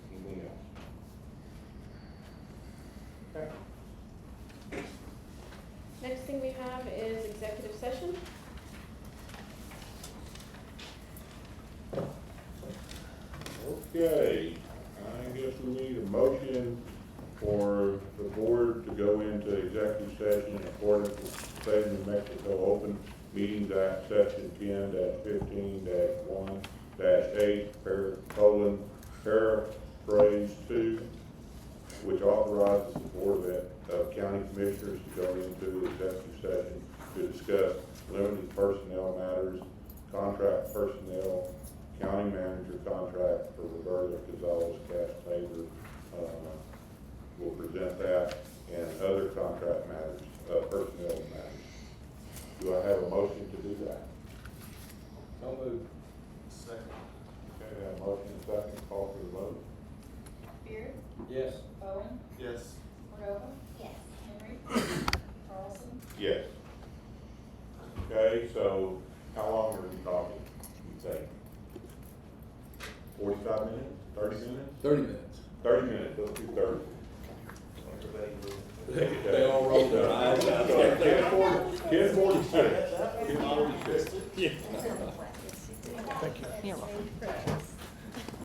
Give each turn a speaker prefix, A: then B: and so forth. A: guess we need a motion for the board to go into executive session in accordance with the state of New Mexico Open Meetings Act, section ten fifteen one eight, per, colon, paraphrase two, which authorizes the Board of, of County Commissioners to go into executive session to discuss limited personnel matters, contract personnel, county manager contract for Roberta Gonzalez Cash Favor. Will present that and other contract matters, uh, personnel matters. Do I have a motion to do that?
B: So moved. Second.
A: Okay, I have a motion, and a second, call for the vote.
C: Beard,
B: Yes.
C: Bowen,
B: Yes.
C: Cordova,
D: Yes.
C: Henry, Carlson,
A: Yes. Okay, so how long are we talking, you think? Forty-five minutes, thirty minutes?
E: Thirty minutes.
A: Thirty minutes, let's do thirty.
E: They all rolled their eyes out.
A: So, Ten forty, ten forty-six. Ten forty-six.
D: Thank you.